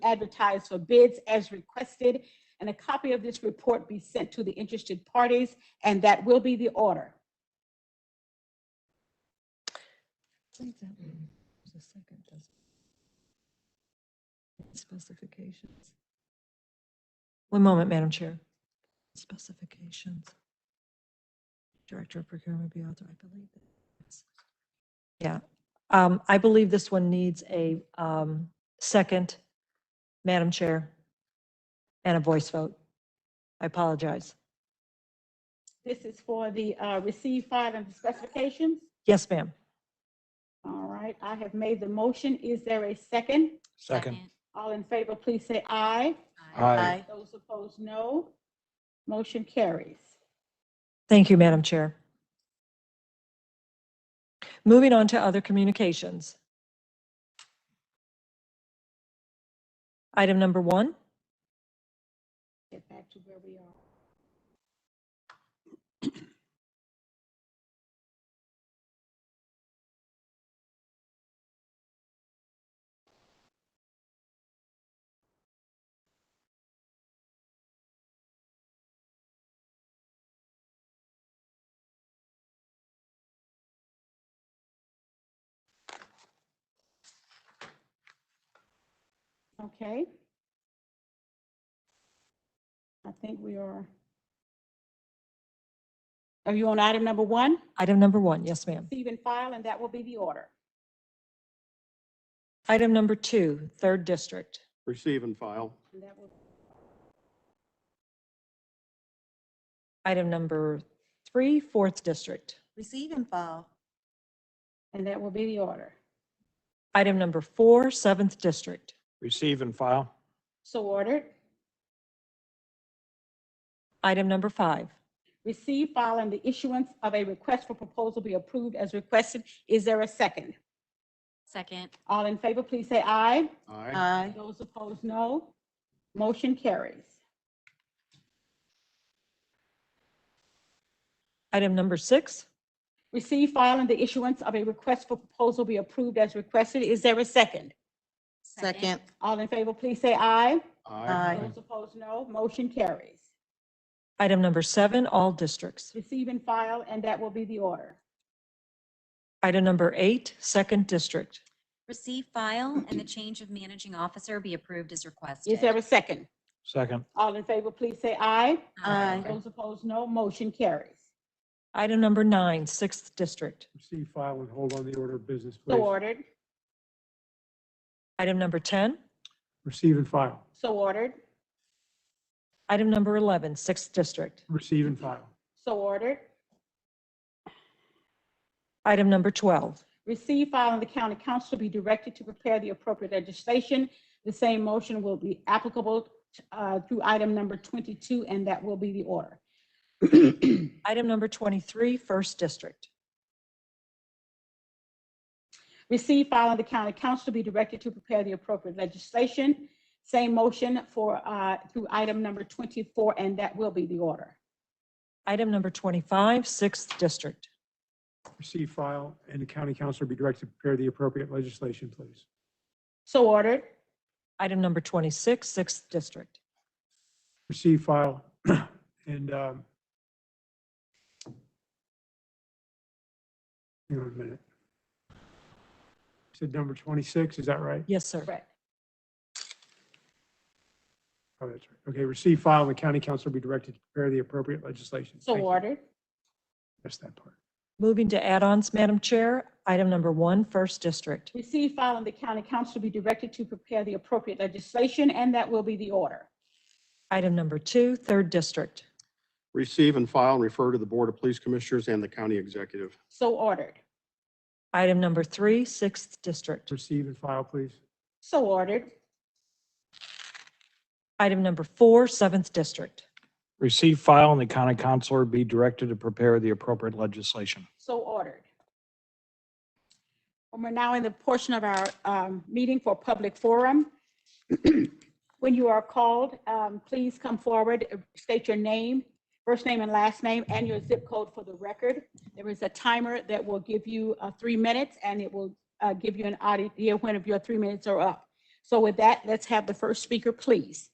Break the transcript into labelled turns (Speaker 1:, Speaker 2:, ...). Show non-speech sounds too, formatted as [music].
Speaker 1: advertise for bids as requested, and a copy of this report be sent to the interested parties, and that will be the order.
Speaker 2: think that one was the second, doesn't it? Specifications. One moment, Madam Chair. Specifications. Director of Procurement be authorized, I believe. that's- Yeah, um, I believe this one needs a, um, second, Madam Chair, and a voice vote. I apologize.
Speaker 1: This is for the uh, receive, file, and specifications.
Speaker 2: Yes, ma'am.
Speaker 1: All right, I have made the motion. Is there a second?
Speaker 3: Second.
Speaker 1: All in favor, please say aye.
Speaker 3: Aye.
Speaker 1: Those opposed, no. Motion carries.
Speaker 2: Thank you, Madam Chair. Moving on to other communications. Item number one,
Speaker 1: Get back to where we are. Okay. I think we are. Are you on item number one?
Speaker 2: item number one, yes, ma'am.
Speaker 1: Receive and file, and that will be the order.
Speaker 2: Item number two, third district.
Speaker 3: Receive and file.
Speaker 1: And that will-
Speaker 2: Item number three, fourth district.
Speaker 4: Receive and file.
Speaker 1: And that will be the order.
Speaker 2: Item number four, seventh district.
Speaker 3: Receive and file.
Speaker 1: So ordered.
Speaker 2: Item number five.
Speaker 1: Receive, file, and the issuance of a request for proposal be approved as requested. Is there a second?
Speaker 5: Second.
Speaker 1: All in favor, please say aye.
Speaker 3: Aye.
Speaker 4: Aye.
Speaker 1: Those opposed, no. Motion carries.
Speaker 2: Item number six,
Speaker 1: Receive, file, and the issuance of a request for proposal be approved as requested. Is there a second?
Speaker 4: Second.
Speaker 1: All in favor, please say aye.
Speaker 4: Aye.
Speaker 1: Those opposed, no. Motion carries.
Speaker 2: item number seven, all districts.
Speaker 1: Receive and file, and that will be the order.
Speaker 2: Item number eight, second district.
Speaker 5: Receive, file, and the change of managing officer be approved as requested.
Speaker 1: Is there a second?
Speaker 3: Second.
Speaker 1: All in favor, please say aye.
Speaker 4: Aye.
Speaker 1: Those opposed, no. Motion carries.
Speaker 2: Item number nine, sixth district.
Speaker 3: Receive, file, and hold on the order of business,
Speaker 1: So
Speaker 3: please.
Speaker 1: ordered,
Speaker 2: Item number 10,
Speaker 3: Receive and file.
Speaker 1: so ordered,
Speaker 2: item number 11, sixth district.
Speaker 3: Receive and file.
Speaker 1: so ordered.
Speaker 2: Item number 12,
Speaker 1: Receive, file, and the county council be directed to prepare the appropriate legislation. The same motion will be applicable uh, through item number 22, and that will be the order.
Speaker 2: item number 23, first district.
Speaker 1: Receive, file, and the county council be directed to prepare the appropriate legislation. Same motion for, uh, through item number 24, and that will be the order.
Speaker 2: Item number 25, sixth district.
Speaker 3: Receive, file, and the county council be directed to prepare the appropriate legislation, please.
Speaker 1: So ordered,
Speaker 2: Item number 26, sixth district.
Speaker 3: Receive, file, [clears throat] and, um, hang on a minute. You Said number 26, is that right?
Speaker 2: Yes, sir.
Speaker 1: correct.
Speaker 3: Oh, that's right. Okay, receive, file, and the county council be directed to prepare the appropriate legislation.
Speaker 1: So
Speaker 3: Thank you.
Speaker 1: ordered,
Speaker 3: Missed that part.
Speaker 2: Moving to add-ons, Madam Chair, item number one, first district.
Speaker 1: receive, file, and the county council be directed to prepare the appropriate legislation, and that will be the order.
Speaker 2: Item number two, third district.
Speaker 6: Receive and file and refer to the Board of Police Commissioners and the county executive.
Speaker 1: So ordered,
Speaker 2: Item number three, sixth district.
Speaker 3: Receive and file, please.
Speaker 1: so ordered,
Speaker 2: Item number four, seventh district.
Speaker 7: Receive, file, and the county counselor be directed to prepare the appropriate legislation.
Speaker 1: so ordered. And we're now in the portion of our um, meeting for public forum. [clears throat] When you are called, um, please come forward, uh, state your name, first name and last name, and your zip code for the record. There is a timer that will give you uh, three minutes, and it will uh, give you an idea when of your three minutes are up. So with that, let's have the first speaker, please.